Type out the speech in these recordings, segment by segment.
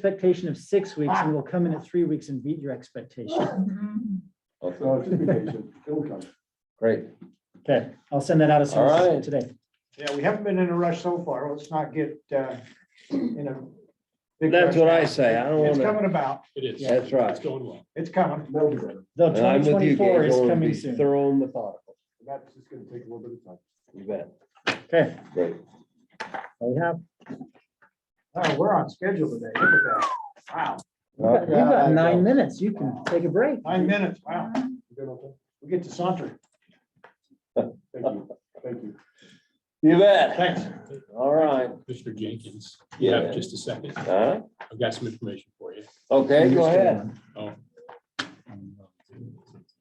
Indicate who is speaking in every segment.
Speaker 1: expectation of six weeks and we'll come in at three weeks and beat your expectation.
Speaker 2: So just be patient, it will come.
Speaker 3: Great.
Speaker 1: Okay, I'll send that out as soon as
Speaker 3: All right.
Speaker 1: today.
Speaker 4: Yeah, we haven't been in a rush so far. Let's not get, uh, in a. big rush
Speaker 3: That's what I
Speaker 4: now.
Speaker 3: say. I don't
Speaker 4: It's
Speaker 3: wanna-
Speaker 4: coming about.
Speaker 5: It is.
Speaker 3: Yeah, that's right.
Speaker 5: It's going well.
Speaker 4: It's coming.
Speaker 2: That'll be better.
Speaker 1: Though
Speaker 3: And I'm
Speaker 1: twenty
Speaker 3: with you,
Speaker 1: twenty-four
Speaker 3: Gage.
Speaker 1: is
Speaker 3: I wanna
Speaker 1: coming
Speaker 3: be
Speaker 1: soon.
Speaker 3: Thorough and methodical.
Speaker 2: That's just gonna take a little bit of time.
Speaker 3: You bet.
Speaker 1: Okay,
Speaker 3: Great.
Speaker 1: we have,
Speaker 4: Oh, we're on schedule today. Look at that. Wow,
Speaker 1: we've got- we've got
Speaker 2: Yeah,
Speaker 1: nine minutes. You can take a break.
Speaker 4: nine minutes. Wow,
Speaker 2: You good, okay?
Speaker 4: we get to saunter.
Speaker 2: Thank you, thank you.
Speaker 3: You bet.
Speaker 4: Thanks.
Speaker 3: All right.
Speaker 5: Mr. Jenkins, you
Speaker 3: Yeah.
Speaker 5: have just a second.
Speaker 3: Huh?
Speaker 5: I've got some information for you.
Speaker 3: Okay, go ahead.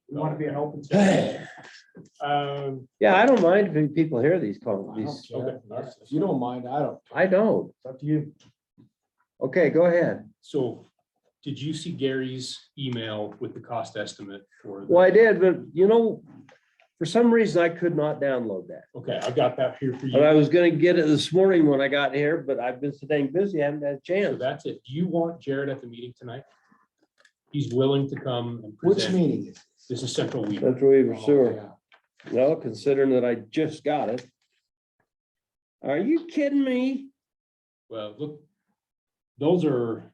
Speaker 4: We want to be an open. session.
Speaker 3: Yeah,
Speaker 5: Um,
Speaker 3: I don't mind when people hear these calls. These,
Speaker 5: okay, all right.
Speaker 2: If you don't mind, I don't,
Speaker 3: I don't.
Speaker 2: it's up to you.
Speaker 3: Okay, go ahead.
Speaker 5: So did you see Gary's email with the cost estimate for? the-
Speaker 3: Well, I did, but you know, for some reason I could not download that.
Speaker 5: Okay, I've got that here for
Speaker 3: And I
Speaker 5: you.
Speaker 3: was gonna get it this morning when I got here, but I've been so dang busy, I haven't had a
Speaker 5: So
Speaker 3: chance.
Speaker 5: that's it. Do you want Jared at the meeting tonight? He's willing to come and
Speaker 2: Which
Speaker 5: present.
Speaker 2: meeting is?
Speaker 5: This is Central Weaver.
Speaker 3: That's Weaver
Speaker 2: Oh,
Speaker 3: Sewer.
Speaker 2: yeah.
Speaker 3: Well, considering that I just got it. Are you kidding me?
Speaker 5: Well, look, those are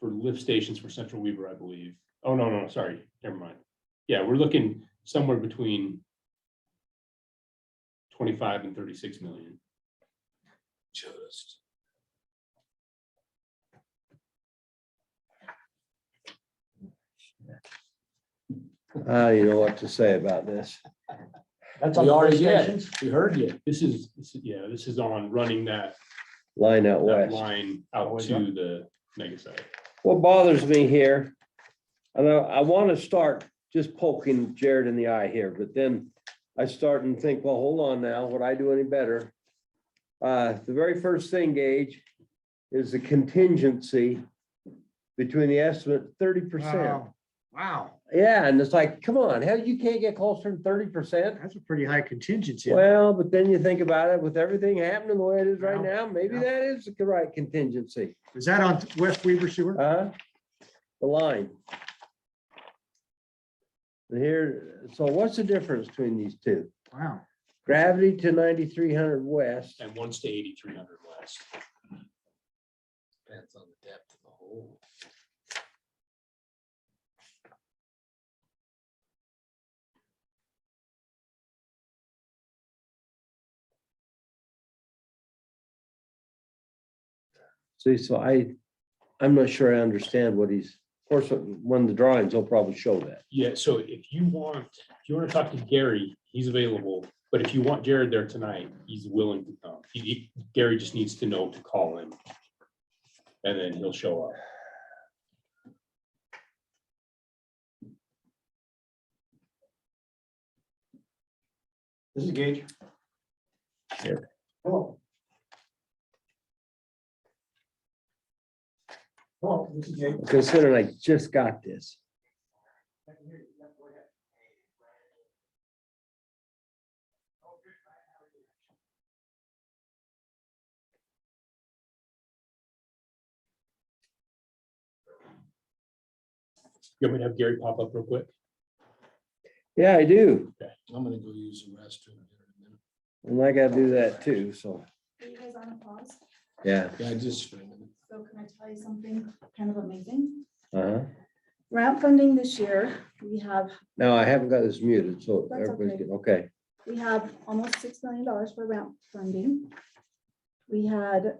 Speaker 5: for lift stations for Central Weaver, I believe. Oh, no, no, sorry, never mind. Yeah, we're looking somewhere between twenty-five and thirty-six million. Just.
Speaker 3: I don't Ah, know what to say about this.
Speaker 4: That's on
Speaker 5: We
Speaker 4: the
Speaker 5: already
Speaker 4: first
Speaker 5: did.
Speaker 4: stations?
Speaker 5: We heard you. This is, this is- yeah, this is on running that,
Speaker 3: Line out
Speaker 5: that
Speaker 3: west.
Speaker 5: line out
Speaker 4: Always
Speaker 5: to
Speaker 4: up.
Speaker 5: the mega site.
Speaker 3: What bothers me here, and I, I want to start just poking Jared in the eye here, but then I start and think, well, hold on now, would I do any better? Uh, the very first thing, Gage, is the contingency between the estimate thirty percent.
Speaker 4: Wow. Wow,
Speaker 3: Yeah, and it's like, come on, hell, you can't get closer than thirty percent?
Speaker 4: that's a pretty high contingency.
Speaker 3: Well, but then you think about it, with everything happening the way it is right now, maybe
Speaker 4: yeah.
Speaker 3: that is the right contingency,
Speaker 4: Is that on West Weaver Sewer?
Speaker 3: huh? Uh, The line. Here, so what's the difference between these two?
Speaker 4: Wow.
Speaker 3: Gravity to ninety-three hundred west,
Speaker 5: And once to eighty-three hundred west.
Speaker 6: Depends on the depth of the hole.
Speaker 3: see, so I, I'm not sure I understand what he's, of course, when the drawings, they'll probably show that.
Speaker 5: Yeah, so if you want, if you want to talk to Gary, he's available, but if you want Jared there tonight, he's willing to come. He- he- Gary just needs to know to call him. And then he'll show up.
Speaker 4: This is Gage.
Speaker 3: Here.
Speaker 4: Hello. Hello, this is Gage.
Speaker 3: Considering I just got this.
Speaker 5: You want me to have Gary pop up real quick?
Speaker 3: Yeah, I do,
Speaker 6: I'm gonna go use the restroom here in a
Speaker 3: and
Speaker 6: minute.
Speaker 3: I gotta do that too, so,
Speaker 7: Are you guys on a pause?
Speaker 3: yeah,
Speaker 6: Yeah, just for a minute.
Speaker 7: So can I tell you something kind of amazing?
Speaker 3: uh-huh.
Speaker 7: Grant funding this year, we have,
Speaker 3: No, I haven't got this muted, so
Speaker 7: That's
Speaker 3: everybody's
Speaker 7: okay.
Speaker 3: good, okay.
Speaker 7: we have almost six million dollars for grant funding. We had,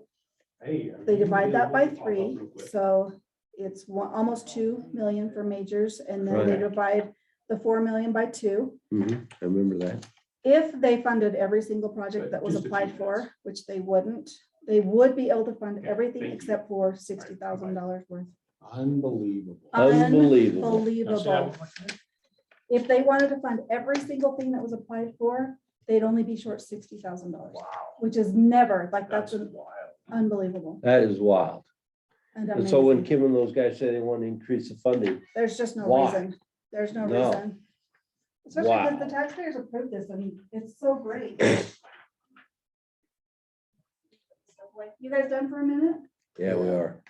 Speaker 5: Hey.
Speaker 7: they divide that by three, so it's one, almost two million for majors, and then they
Speaker 3: Right.
Speaker 7: divide the four million by two.
Speaker 3: Mhm, I remember that.
Speaker 7: If they funded every single project
Speaker 5: Right,
Speaker 7: that was
Speaker 5: just a few
Speaker 7: applied for,
Speaker 5: minutes.
Speaker 7: which they wouldn't, they would be able to fund
Speaker 5: Okay,
Speaker 7: everything
Speaker 5: thank you.
Speaker 7: except for sixty thousand dollars worth.
Speaker 6: Unbelievable.
Speaker 7: Um,
Speaker 3: Unbelievable.
Speaker 7: Unbelievable. If they wanted to fund every single thing that was applied for, they'd only be short sixty thousand dollars, which is never, like, that's
Speaker 5: That's
Speaker 7: an-
Speaker 5: wild.
Speaker 7: unbelievable.
Speaker 3: That is wild.
Speaker 7: and
Speaker 3: And so when
Speaker 7: amazing.
Speaker 3: Kim and those guys say they want to increase the funding,
Speaker 7: There's just no
Speaker 3: Why?
Speaker 7: reason, there's no
Speaker 3: No.
Speaker 7: reason. Especially
Speaker 3: Wow.
Speaker 7: because the taxpayers approved this, I mean, it's so great. So, like, You guys done for a minute?
Speaker 3: yeah, we are.